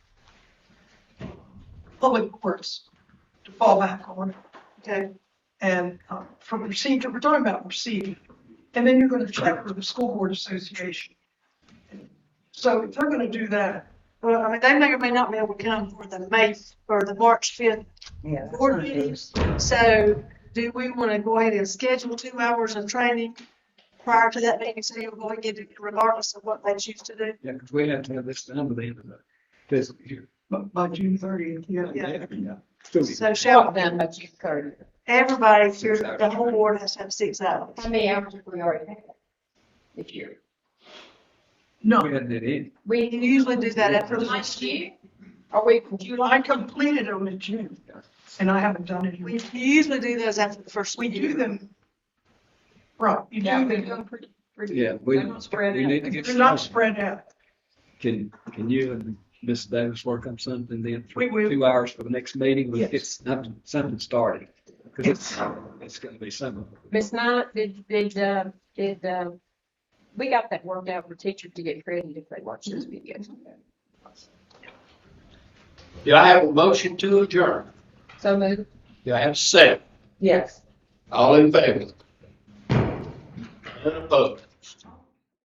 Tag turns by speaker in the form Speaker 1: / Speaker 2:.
Speaker 1: public works to fall back on.
Speaker 2: Okay.
Speaker 1: And uh, for procedure, we're talking about procedure. And then you're going to check with the school board association. So if they're going to do that,
Speaker 2: Well, I mean, they may or may not be able to come for the May, or the March fifth
Speaker 3: Yeah. that's
Speaker 2: board
Speaker 3: not good.
Speaker 2: meetings. So do we want to go ahead and schedule two hours of training prior to that meeting, so you're going to get it regardless of what they choose to do?
Speaker 4: Yeah, because we have to have this done by the end of the fiscal year.
Speaker 1: bu- by June thirtieth, yeah.
Speaker 2: Yeah.
Speaker 4: Still be-
Speaker 2: So shall
Speaker 3: Shut down by June thirty.
Speaker 2: everybody here,
Speaker 4: Six hours.
Speaker 2: the whole board has to have six hours?
Speaker 3: How many hours have we already had this year?
Speaker 1: No,
Speaker 4: We had that in.
Speaker 3: We
Speaker 2: You usually do that after
Speaker 3: from
Speaker 2: the
Speaker 3: last year? Are we from
Speaker 1: I
Speaker 3: July?
Speaker 1: completed them in June and I haven't done it.
Speaker 2: We
Speaker 1: in-
Speaker 2: usually do those after the first.
Speaker 1: We
Speaker 2: year.
Speaker 1: do them. Right, you
Speaker 5: Yeah,
Speaker 1: do
Speaker 5: we're
Speaker 1: them.
Speaker 5: doing pretty, pretty.
Speaker 4: Yeah, we,
Speaker 5: They're not spread
Speaker 4: we
Speaker 5: out.
Speaker 4: need to get.
Speaker 1: They're not
Speaker 4: started.
Speaker 1: spread out.
Speaker 4: Can, can you and Ms. Davis work on something then? for
Speaker 1: We will.
Speaker 4: Two hours for the next meeting,
Speaker 1: Yes.
Speaker 4: let's get something, something started. Because it's, it's gonna be something.
Speaker 5: Miss Knight, did, did, uh, did, uh, we got that worked out for teachers to get credit if they watch this video.
Speaker 6: Do I have a motion to adjourn?
Speaker 5: So moved.
Speaker 6: Do I have a second?
Speaker 3: Yes.
Speaker 6: All in favor? None opposed?